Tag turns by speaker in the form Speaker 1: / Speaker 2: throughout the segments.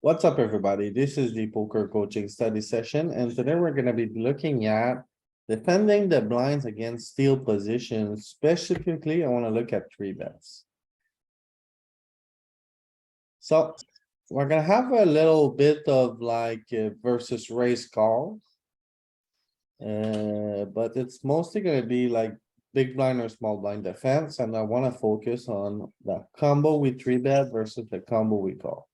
Speaker 1: What's up, everybody? This is the poker coaching study session, and today we're gonna be looking at defending the blinds against steel positions. Specifically, I wanna look at three bets. So we're gonna have a little bit of like uh, versus race call. Uh, but it's mostly gonna be like big blind or small blind defense, and I wanna focus on the combo we three bet versus the combo we call.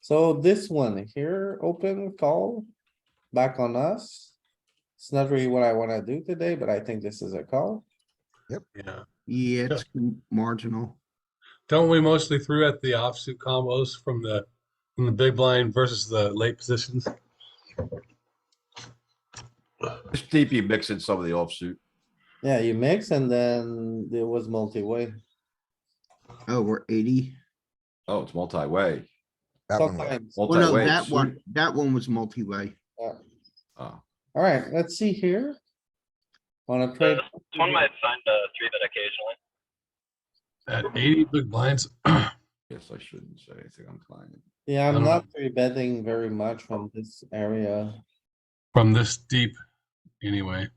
Speaker 1: So this one here, open call, back on us. It's not really what I wanna do today, but I think this is a call.
Speaker 2: Yeah,
Speaker 3: Yeah, it's m- marginal.
Speaker 2: don't we mostly threw at the offsuit combos from the, from the big blind versus the late positions?
Speaker 4: This DP mixing some of the offsuit.
Speaker 1: Yeah, you mix and then it was multi-way.
Speaker 3: Oh, we're eighty.
Speaker 4: Oh, it's multi-way.
Speaker 5: That one was-
Speaker 1: Sometimes.
Speaker 3: Well, Oh, no,
Speaker 4: Multi-way.
Speaker 3: that
Speaker 4: suit.
Speaker 3: one, that one was multi-way.
Speaker 4: Oh,
Speaker 1: Alright, let's see here. Wanna play?
Speaker 6: One might find a three bet occasionally.
Speaker 2: At eighty big blinds,
Speaker 4: Guess I shouldn't say anything on client.
Speaker 1: Yeah,
Speaker 2: I
Speaker 1: I'm
Speaker 2: don't
Speaker 1: not three betting very much from this area.
Speaker 2: from this deep, anyway.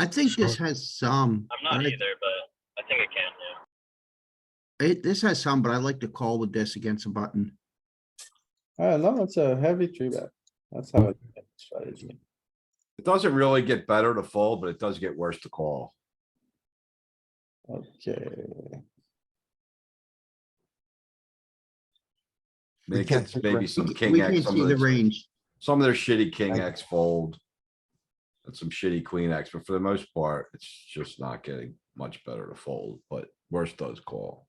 Speaker 3: I think this
Speaker 2: Sure.
Speaker 3: has some.
Speaker 6: I'm not
Speaker 3: I like-
Speaker 6: either, but I think it can, yeah.
Speaker 3: It, this has some, but I like to call with this against a button.
Speaker 1: I don't know, Uh, it's a heavy three bet. That's how it's strategy.
Speaker 4: It doesn't really get better to fold, but it does get worse to call.
Speaker 1: Okay,
Speaker 4: I mean,
Speaker 5: We
Speaker 4: It
Speaker 5: can't
Speaker 4: gets
Speaker 5: see the
Speaker 4: maybe
Speaker 5: range.
Speaker 4: some
Speaker 3: We
Speaker 4: king
Speaker 3: can
Speaker 4: X, some
Speaker 3: see
Speaker 4: of
Speaker 3: the
Speaker 4: the,
Speaker 3: range.
Speaker 4: some of their shitty king X fold. And some shitty queen X, but for the most part, it's just not getting much better to fold, but worse does call.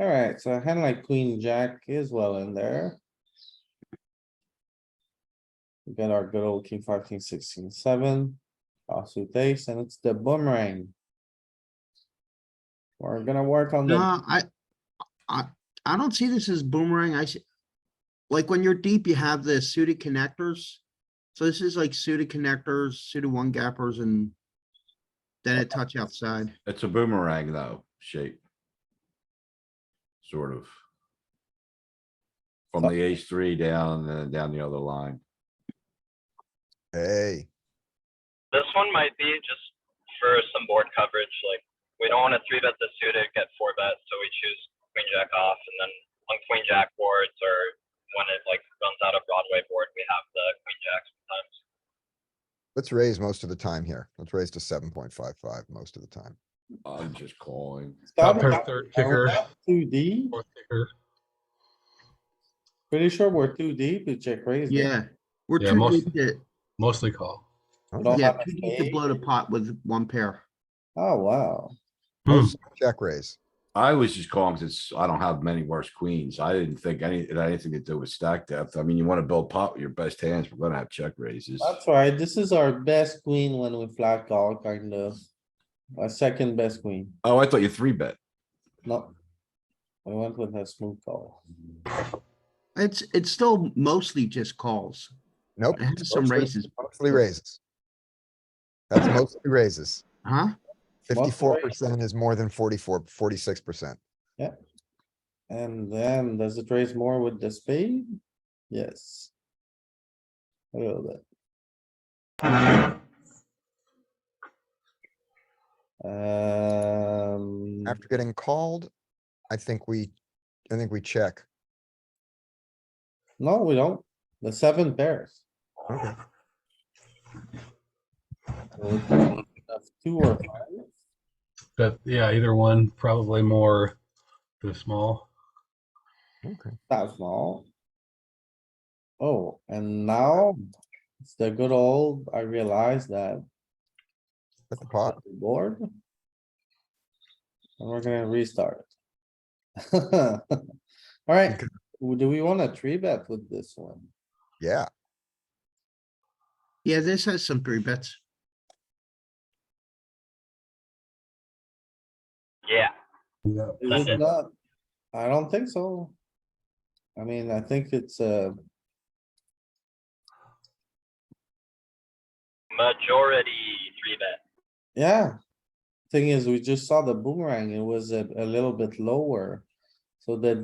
Speaker 1: alright, so a hand like queen jack is well in there. We got our good old king five, king six, king seven, offsuit ace, and it's the boomerang. We're gonna work on
Speaker 3: No,
Speaker 1: the,
Speaker 3: I, I, I don't see this as boomerang. I see. Like when you're deep, you have the suited connectors. So this is like suited connectors, suited one gappers and then a touch outside.
Speaker 4: It's a boomerang though, shape. Sort of. From
Speaker 1: So-
Speaker 4: the ace three down and then down the other line.
Speaker 5: Hey,
Speaker 6: This one might be just for some board coverage, like, we don't wanna three bet the suited, get four bet, so we choose queen jack off, and then on queen jack boards, or when it like runs out of Broadway board, we have the queen jack sometimes.
Speaker 5: let's raise most of the time here. Let's raise to seven point five five most of the time.
Speaker 1: Uh-huh.
Speaker 4: I'm just calling.
Speaker 2: Top
Speaker 1: Stop.
Speaker 2: pair third kicker,
Speaker 1: too deep,
Speaker 2: fourth kicker.
Speaker 1: pretty sure we're too deep to check raise. there.
Speaker 3: Yeah, we're
Speaker 2: Yeah,
Speaker 3: too
Speaker 2: most-
Speaker 3: deep to,
Speaker 2: Mostly call.
Speaker 1: We don't
Speaker 3: yeah,
Speaker 1: have a
Speaker 3: too deep to
Speaker 1: spade.
Speaker 3: blow the pot with one pair.
Speaker 1: Oh, wow.
Speaker 2: Hmm.
Speaker 5: Check raise.
Speaker 4: I was just calling because I don't have many worse queens. I didn't think any, it had anything to do with stack depth. I mean, you want to build pot with your best hands. We're gonna have check raises.
Speaker 1: That's right, this is our best queen when we flat call, kind of. Our second best queen,
Speaker 4: Oh, I thought you three bet.
Speaker 1: no. We went with a smooth call.
Speaker 3: It's, it's still mostly just calls.
Speaker 5: Nope.
Speaker 3: It has some
Speaker 5: mostly-
Speaker 3: raises,
Speaker 5: Mostly raises. That's mostly raises.
Speaker 3: huh?
Speaker 5: Fifty-four percent is more than 44, 46 percent.
Speaker 1: And then, does it raise more with the spade? Yes. A little bit. Um,
Speaker 5: After getting called, I think we, I think we check.
Speaker 1: no, we don't, the seven pairs.
Speaker 5: Okay.
Speaker 1: So it's of Two or five.
Speaker 2: But yeah, either one, probably more the small.
Speaker 5: Okay.
Speaker 1: That's small. Oh, and now it's the good old, I realize that
Speaker 5: At the pot.
Speaker 1: board. And we're gonna restart. Alright,
Speaker 5: Okay.
Speaker 1: do we want a three bet with this one?
Speaker 5: Yeah,
Speaker 3: Yeah, this has some three bets.
Speaker 6: Yeah,
Speaker 2: Yeah.
Speaker 1: Is it
Speaker 6: Second.
Speaker 1: not? I don't think so. I mean, I think it's uh, a
Speaker 6: majority three bet.
Speaker 1: Yeah. Thing is, we just saw the boomerang, it was a, a little bit lower. So the